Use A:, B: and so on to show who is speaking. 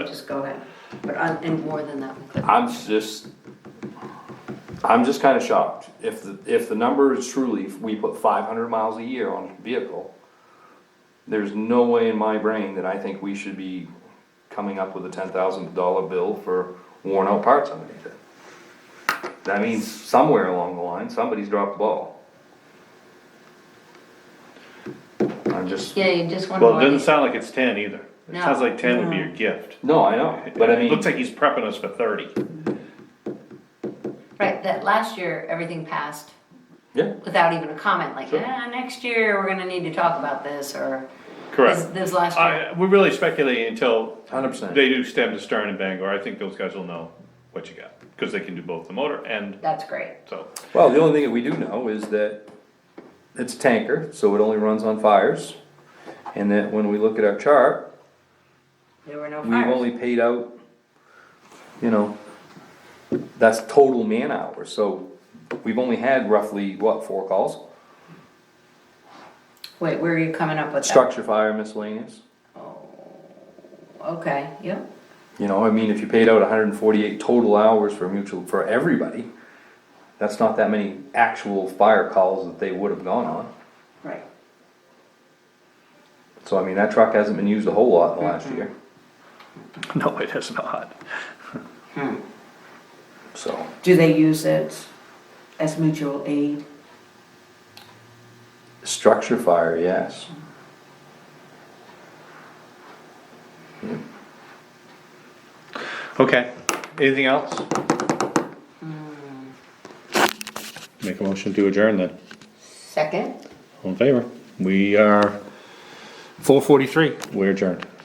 A: just go ahead, but I think more than that. we could.
B: I'm just, I'm just kinda shocked. If the, if the number is truly, if we put five hundred miles a year on a vehicle, there's no way in my brain that I think we should be coming up with a ten thousand dollar bill for worn out parts underneath it. That means somewhere along the line, somebody's dropped the ball. I'm just,
A: Yeah, you just wonder
C: Well, it
A: why,
C: doesn't sound like it's ten either. It
A: No.
C: sounds like ten would be your gift.
B: no, I know, but I mean.
C: It Looks like he's prepping us for thirty.
A: right, that last year, everything passed
B: Yeah,
A: without even a comment, like,
B: Sure.
A: ah, next year, we're gonna need to talk about this, or. This,
C: Correct.
A: this last year,
C: I, we're really speculating until
B: hundred percent.
C: they do stem to stern in Bangor. I think those guys will know what you got, cause they can do both the motor and
A: that's great,
C: so.
B: Well, the only thing that we do know is that it's tanker, so it only runs on fires. And that when we look at our chart,
A: there were no
B: we've
A: fires,
B: only paid out, you know, that's total man hours, so we've only had roughly, what, four calls?
A: wait, where are you coming up with that?
B: Structure fire miscellaneous,
A: Okay, yep,
B: you know, I mean, if you paid out hundred and forty-eight total hours for mutual, for everybody, that's not that many actual fire calls that they would have gone on.
A: right,
B: So I mean, that truck hasn't been used a whole lot in the last year,
C: No, it is not.
B: so.
D: Do they use it as mutual aid?
B: Structure fire, yes.
C: Okay, anything else? Hmm. Make a motion to adjourn then.
A: second?
C: All in favor? We are four forty-three. We're adjourned.